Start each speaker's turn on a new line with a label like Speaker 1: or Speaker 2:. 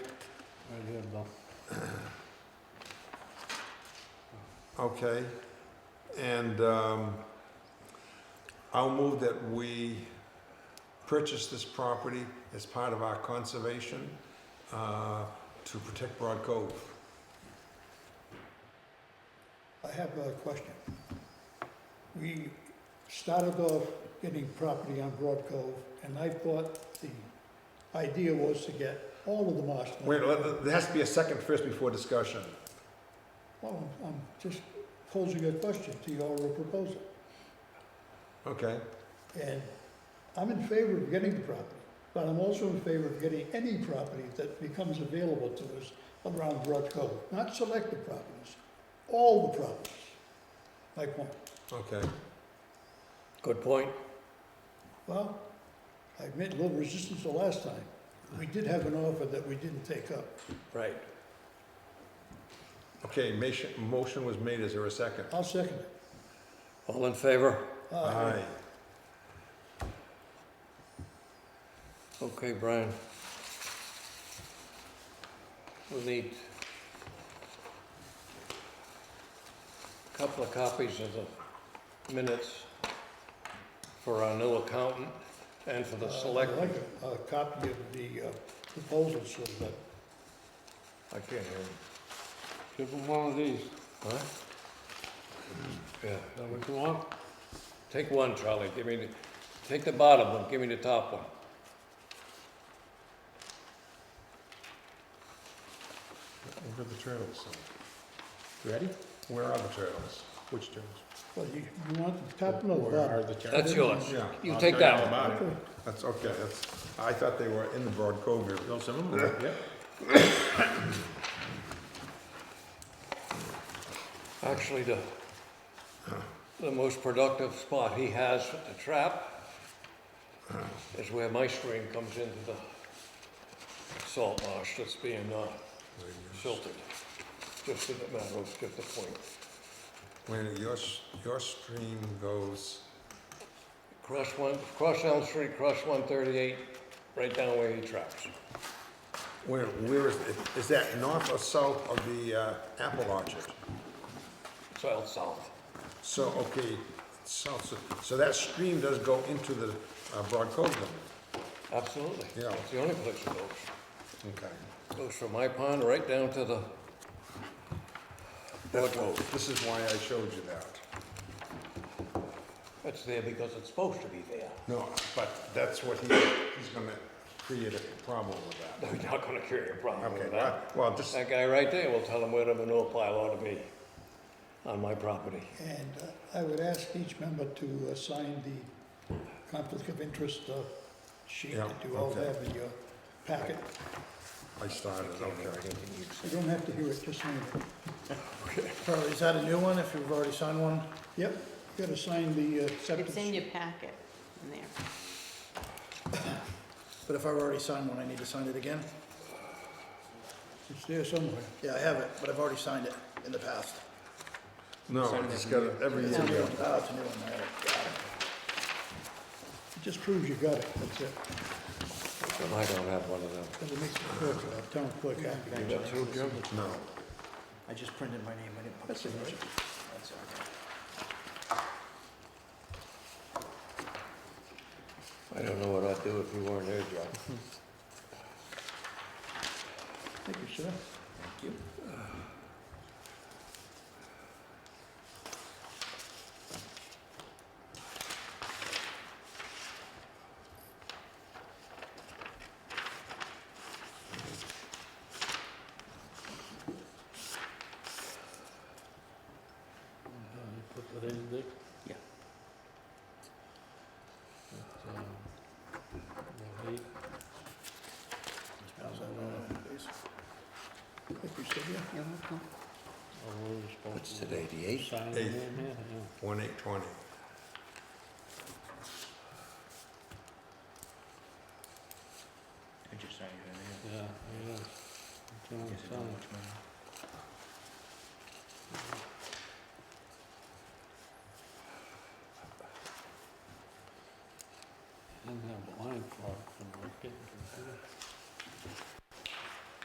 Speaker 1: here, though.
Speaker 2: Okay, and um, I'll move that we purchase this property as part of our conservation uh, to protect Broad Cove.
Speaker 3: I have a question. We started off getting property on Broad Cove, and I thought the idea was to get all of the marshland.
Speaker 2: Wait, let- there has to be a second first before discussion.
Speaker 3: Well, I'm- I'm just posing a question to your proposal,
Speaker 2: Okay,
Speaker 3: and I'm in favor of getting the property, but I'm also in favor of getting any property that becomes available to us around Broad Cove, not selective properties, all the properties, my point.
Speaker 2: okay.
Speaker 4: Good point.
Speaker 3: Well, I made a little resistance the last time. We did have an offer that we didn't take up.
Speaker 4: Right.
Speaker 2: Okay, mation- motion was made, is there a second?
Speaker 3: I'll second it.
Speaker 4: All in favor?
Speaker 3: Uh,
Speaker 4: Okay, Brian. We'll need a couple of copies of the minutes for our new accountant and for the
Speaker 3: uh,
Speaker 4: select.
Speaker 3: I'd like a- a copy of the uh, proposal so that,
Speaker 4: I can't hear you.
Speaker 1: Give him one of these.
Speaker 4: Huh? Yeah, is that what you want? Take one, Charlie, give me the, take the bottom one, give me the top one.
Speaker 2: Where are the turtles? Ready? Where are the turtles? Which turtles?
Speaker 3: well, you, you want the top note, Bob?
Speaker 5: the turtles?
Speaker 4: That's yours.
Speaker 2: Yeah.
Speaker 4: You
Speaker 5: I'll
Speaker 4: take
Speaker 5: tell you all
Speaker 4: that one.
Speaker 5: about it.
Speaker 3: Okay.
Speaker 2: That's, okay, that's, I thought they were in the Broad Cove area.
Speaker 5: Well, some of them are, yeah.
Speaker 4: Actually, the, the most productive spot he has at the trap is where my stream comes into the salt marsh that's being, uh, silted. Just as a matter of, just a point.
Speaker 2: When your, s- your stream goes,
Speaker 4: Cross one, cross Elm Street, cross one thirty-eight, right down where he traps.
Speaker 2: where, where is, it? Is that north or south of the uh, apple orchard?
Speaker 4: South, south.
Speaker 2: So, okay, south, so, so that stream does go into the uh, Broad Cove then?
Speaker 4: Absolutely.
Speaker 2: Yeah.
Speaker 4: It's the only place it goes.
Speaker 2: Okay.
Speaker 4: Goes from my pond right down to the Broad Cove.
Speaker 2: This is why I showed you that.
Speaker 4: It's there because it's supposed to be there.
Speaker 2: No, but that's what he, he's gonna create a problem with that.
Speaker 4: They're not gonna create a problem
Speaker 2: Okay,
Speaker 4: with that.
Speaker 2: well, well, just,
Speaker 4: That guy right there will tell them where the manure pile ought to be on my property.
Speaker 3: And uh, I would ask each member to uh, sign the conflict of interest uh, sheet
Speaker 2: Yeah,
Speaker 3: that you all
Speaker 2: okay.
Speaker 3: have in your packet.
Speaker 2: I started, okay.
Speaker 3: You don't have to hear it, just sign it.
Speaker 6: Charlie, is that a new one, if you've already signed one?
Speaker 3: Yep, you gotta sign the uh, acceptance.
Speaker 7: It's in your packet, in there.
Speaker 6: But if I've already signed one, I need to sign it again?
Speaker 3: It's there somewhere.
Speaker 6: Yeah, I have it, but I've already signed it in the past.
Speaker 2: No, I just got it every
Speaker 6: It's a new
Speaker 2: year.
Speaker 6: one. Ah, it's a new one, all right, got it.
Speaker 3: It just proves you got it, that's it.
Speaker 4: I don't have one of them.
Speaker 3: Because it makes the clerk, uh, town clerk happy.
Speaker 6: You got two, Jim?
Speaker 2: No,
Speaker 6: I just printed my name, I didn't put
Speaker 3: That's
Speaker 6: the
Speaker 3: all right.
Speaker 6: signature. That's all right.
Speaker 4: I don't know what I'd do if you weren't here, Joe.
Speaker 3: Thank you, sir.
Speaker 1: Put that in there?
Speaker 5: Yeah.
Speaker 1: But, um, well, he-
Speaker 6: How's that going, please?
Speaker 3: Thank you, sir. Yeah.
Speaker 7: You're welcome.
Speaker 1: oh, we're responsible.
Speaker 4: What's today, the eighth?
Speaker 1: Sign
Speaker 2: Eighth.
Speaker 1: them in, yeah.
Speaker 2: one eight twenty.
Speaker 5: I just signed it, I
Speaker 1: Yeah, yeah. That's what I'm
Speaker 5: guess I don't
Speaker 1: saying.
Speaker 5: know which one.
Speaker 1: Didn't have a line for it when I was getting to